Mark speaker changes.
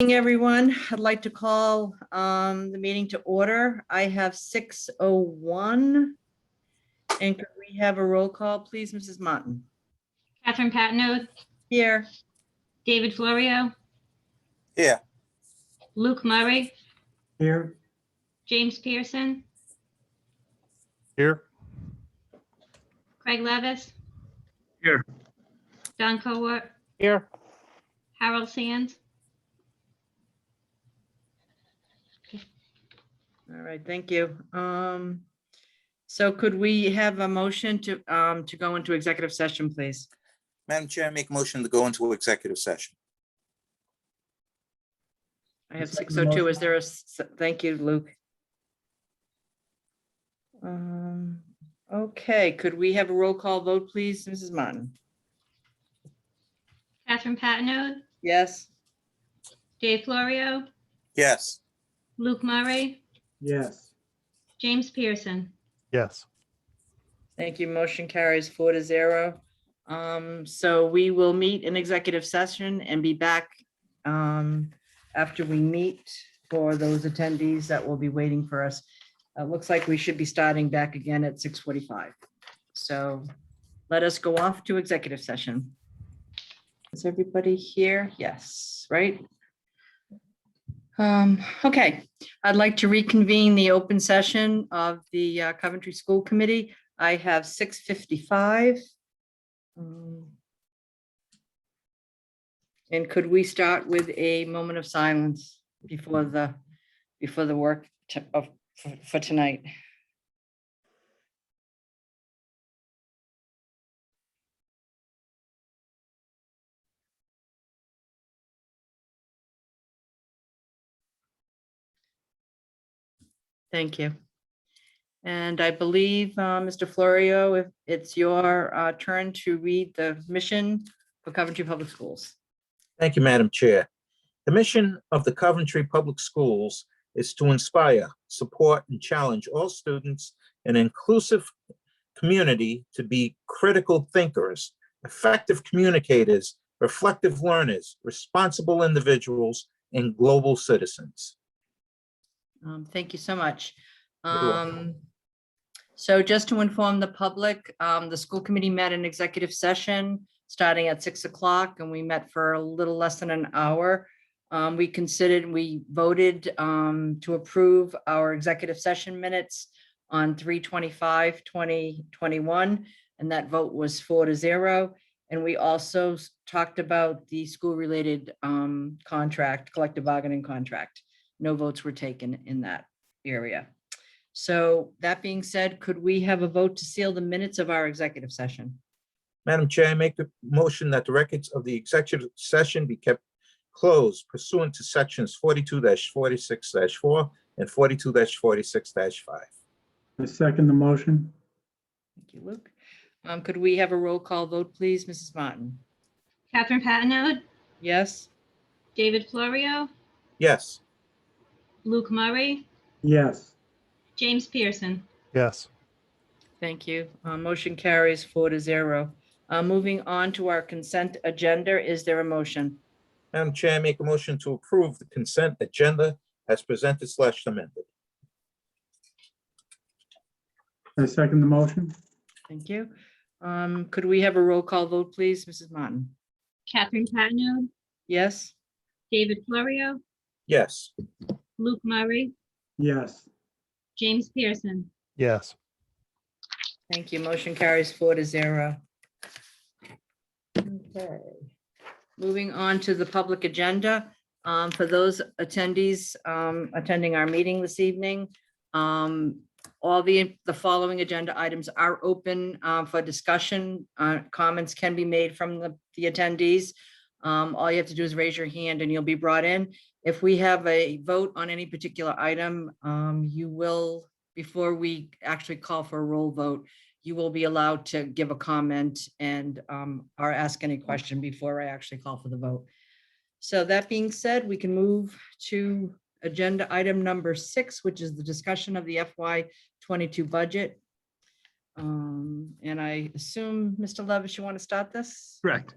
Speaker 1: Evening, everyone. I'd like to call um, the meeting to order. I have 6:01. And could we have a roll call, please, Mrs. Martin?
Speaker 2: Catherine Patino,
Speaker 1: Here.
Speaker 2: David Florio,
Speaker 3: Yeah,
Speaker 2: Luke Murray,
Speaker 4: Here,
Speaker 2: James Pearson,
Speaker 5: Here.
Speaker 2: Craig Levis.
Speaker 5: Here.
Speaker 2: Don Cowart,
Speaker 5: Here.
Speaker 2: Harold Sands,
Speaker 1: All right, thank you. Um, So could we have a motion to, um, to go into executive session, please?
Speaker 3: Madam Chair, I make motion to go into executive session.
Speaker 1: I have
Speaker 4: I'll second the
Speaker 1: 6:02.
Speaker 4: motion.
Speaker 1: Is there a, s- thank you, Luke. Um, Okay, could we have a roll call vote, please, Mrs. Martin?
Speaker 2: Catherine Patino,
Speaker 1: Yes?
Speaker 2: Dave Florio,
Speaker 3: Yes,
Speaker 2: Luke Murray,
Speaker 4: yes,
Speaker 2: James Pearson.
Speaker 5: Yes.
Speaker 1: Thank you. Motion carries four to zero. Um, so we will meet in executive session and be back um, after we meet for those attendees that will be waiting for us. It looks like we should be starting back again at six forty-five. So let us go off to executive session. Is everybody here? Yes, right? Um, okay, I'd like to reconvene the open session of the uh, Coventry School Committee. I have six fifty-five. And could we start with a moment of silence before the, before the work to- of, for- for tonight? Thank you. And I believe, uh, Mr. Florio, if it's your uh, turn to read the mission for Coventry Public Schools.
Speaker 6: Thank you, Madam Chair. The mission of the Coventry Public Schools is to inspire, support, and challenge all students in an inclusive community to be critical thinkers, effective communicators, reflective learners, responsible individuals, and global citizens.
Speaker 1: Um, Thank you so much.
Speaker 6: You're welcome.
Speaker 1: Um, So just to inform the public, um, the school committee met in executive session starting at six o'clock and we met for a little less than an hour. Um, We considered, we voted um, to approve our executive session minutes on 3 25 2021 and that vote was four to zero. And we also s- talked about the school-related um, contract, collective bargaining contract no votes were taken in that area. So that being said, could we have a vote to seal the minutes of our executive session?
Speaker 6: Madam Chair, I make the motion that the records of the executive session be kept closed pursuant to sections forty-two forty-six four and forty-two forty-six five.
Speaker 4: I second the motion,
Speaker 1: Thank you, Luke. Um, could we have a roll call vote, please, Mrs. Martin?
Speaker 2: Catherine Patino,
Speaker 1: Yes,
Speaker 2: David Florio,
Speaker 6: Yes.
Speaker 2: Luke Murray,
Speaker 4: yes,
Speaker 2: James Pearson.
Speaker 5: Yes.
Speaker 1: thank you. Uh, motion carries four to zero. Uh, moving on to our consent agenda, is there a motion?
Speaker 6: Madam Chair, I make a motion to approve the consent agenda as presented slash amended.
Speaker 4: I second the motion,
Speaker 1: Thank you. Um, could we have a roll call vote, please, Mrs. Martin?
Speaker 2: Catherine Patino,
Speaker 1: Yes,
Speaker 2: David Florio,
Speaker 6: Yes.
Speaker 2: Luke Murray,
Speaker 4: yes,
Speaker 2: James Pearson.
Speaker 5: Yes.
Speaker 1: thank you. Motion carries four to zero. Okay. Moving on to the public agenda, um, for those attendees um, attending our meeting this evening, um, all the, the following agenda items are open uh, for discussion. Uh, Comments can be made from the, the attendees. Um, All you have to do is raise your hand and you'll be brought in. If we have a vote on any particular item, um, you will, before we actually call for a roll vote, you will be allowed to give a comment and um, or ask any question before I actually call for the vote. So that being said, we can move to agenda item number six, which is the discussion of the FY twenty-two budget. Um, And I assume, Mr. Levis, you want to start this?
Speaker 7: Correct.